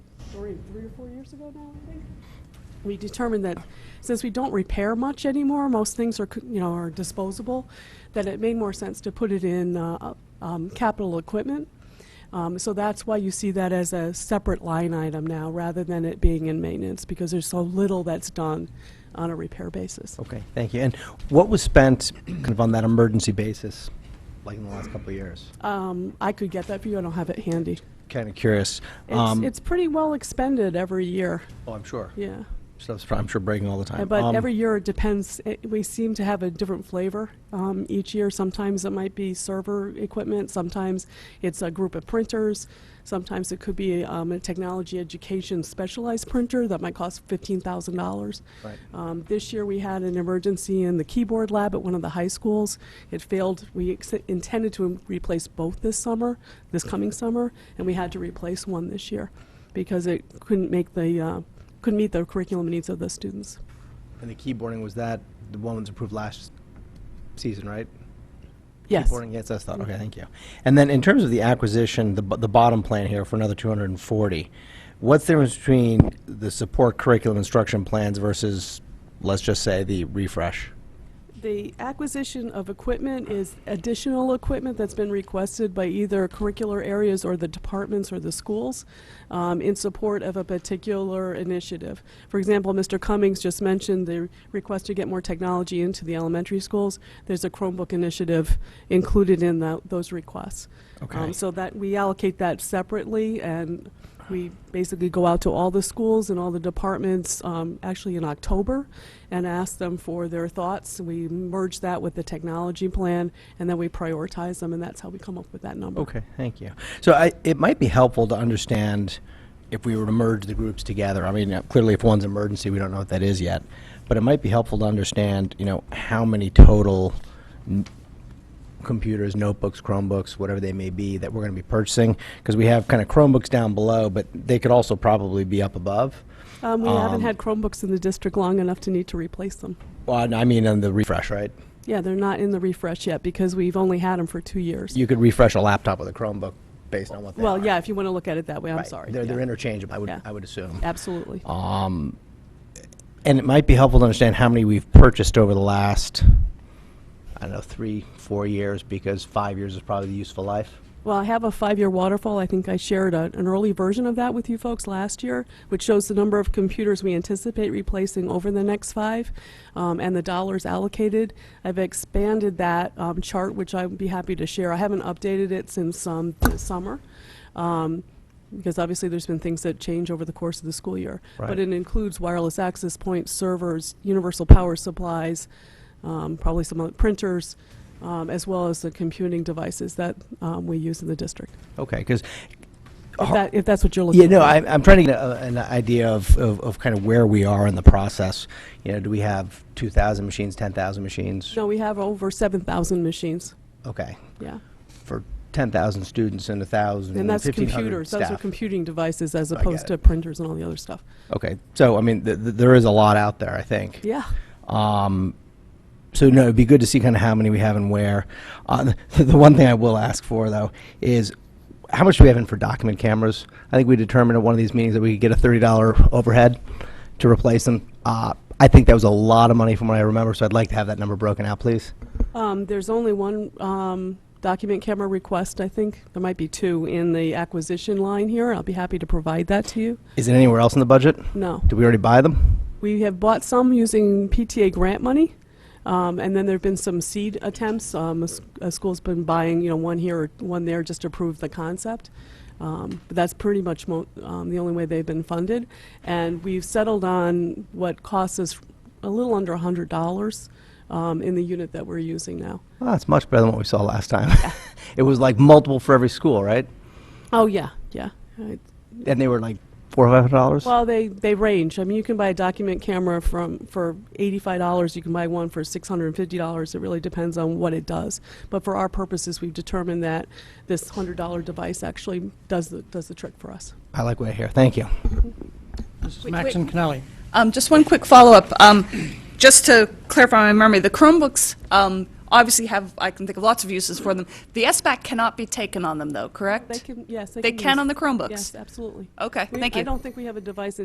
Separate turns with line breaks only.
three, three or four years ago now, I think. We determined that since we don't repair much anymore, most things are, c- you know, are disposable, that it made more sense to put it in uh, um, capital equipment. Um, So that's why you see that as a separate line item now, rather than it being in maintenance, because there's so little that's done on a repair basis.
Okay, thank you. And what was spent kind of on that emergency basis, like in the last couple of years?
Um, I could get that for you, I don't have it handy.
Kind of curious.
It's,
Um,
it's pretty well expended every year,
Oh, I'm sure.
yeah.
Stuff's, pro- I'm sure breaking all the
Uh,
time.
But
Um,
every year it depends, It- we seem to have a different flavor um, each year. Sometimes it might be server equipment, sometimes it's a group of printers, sometimes it could be um, a technology education specialized printer that might cost $15,000.
Right.
Um, This year, we had an emergency in the keyboard lab at one of the high schools. It failed. We ex- intended to replace both this summer, this coming summer, and we had to replace one this year because it couldn't make the, uh, couldn't meet the curriculum needs of the students.
And the keyboarding, was that the one that was approved last season, right?
Yes.
Keyboarding, yes, that's thought, okay, thank you. And then in terms of the acquisition, the, bu- the bottom plan here for another 240, what's the difference between the support curriculum instruction plans versus, let's just say, the refresh?
The acquisition of equipment is additional equipment that's been requested by either curricular areas or the departments or the schools um, in support of a particular initiative. For example, Mr. Cummings just mentioned the request to get more technology into the elementary schools. There's a Chromebook initiative included in tho- those requests.
Okay.
Um, So that, we allocate that separately, and we basically go out to all the schools and all the departments, um, actually in October, and ask them for their thoughts. We merge that with the technology plan, and then we prioritize them, and that's how we come up with that number.
Okay, thank you. So I, it might be helpful to understand if we were to merge the groups together. I mean, uh, clearly if one's emergency, we don't know what that is yet. But it might be helpful to understand, you know, how many total n- computers, notebooks, Chromebooks, whatever they may be, that we're going to be purchasing. Because we have kind of Chromebooks down below, but they could also probably be up above.
Um, We haven't
Um,
had Chromebooks in the district long enough to need to replace them.
Well, and I mean, on the refresh, right?
Yeah, they're not in the refresh yet, because we've only had them for two years.
You could refresh a laptop with a Chromebook based on what they are.
Well, yeah, if you want to look at it that way, I'm
Right.
sorry.
They're,
Yeah.
they're interchangeable, I would,
Yeah.
I would assume.
Absolutely.
Um, and it might be helpful to understand how many we've purchased over the last, I don't know, three, four years, because five years is probably the useful life.
Well, I have a five-year waterfall. I think I shared a, an early version of that with you folks last year, which shows the number of computers we anticipate replacing over the next five um, and the dollars allocated. I've expanded that um, chart, which I would be happy to share. I haven't updated it since um, the summer. Um, because obviously there's been things that change over the course of the school year.
Right.
But it includes wireless access points, servers, universal power supplies, um, probably some other printers, um, as well as the computing devices that um, we use in the district.
Okay, because,
If, that, if that's what you're looking
Uh-huh. yeah, no,
for.
I, I'm trying to get a, an idea of, of, of kind of where we are in the process. You know, do we have 2,000 machines, 10,000 machines?
no, we have over 7,000 machines.
Okay,
Yeah.
for 10,000 students and 1,000,
And that's
1,500
computers. Those are
staff.
computing devices as
I get
opposed to
it.
printers and all the other stuff.
Okay, so, I mean, th- th- there is a lot out there, I think.
Yeah.
Um, so no, it'd be good to see kind of how many we have and where. Uh, the, the one thing I will ask for though is how much do we have in for document cameras? I think we determined at one of these meetings that we could get a thirty dollar overhead to replace them. Uh, I think that was a lot of money from what I remember, so I'd like to have that number broken out, please.
Um, there's only one um, document camera request, I think. There might be two in the acquisition line here. I'll be happy to provide that to you.
Is it anywhere else in the budget?
No.
Did we already buy them?
We have bought some using PTA grant money, um, and then there've been some seed attempts. Um, a, s- a school's been buying, you know, one here or one there just to prove the concept. Um, but that's pretty much mo- um, the only way they've been funded. And we've settled on what costs us a little under $100 um, in the unit that we're using now.
Well, that's much better than what we saw last time. it was like multiple for every school, right?
Oh, yeah, yeah. I-
And they were like four or five hundred dollars.
Well, they, they range. I mean, you can buy a document camera from, for $85, you can buy one for $650. It really depends on what it does. But for our purposes, we've determined that this $100 device actually does the, does the trick for us.
I like what I hear. Thank you.
This is
Wait,
Max
wait.
and Connelly.
Um, Just one quick follow-up. Um, Just to clarify my memory, the Chromebooks um,
obviously have, I can think of lots of uses for them. The SBAC cannot be taken on them, though, correct?
They can, yes, they
They
can
can
use-
on the Chromebooks?
Yes, absolutely.
Okay,
We-
thank
I
you.
don't think we have a device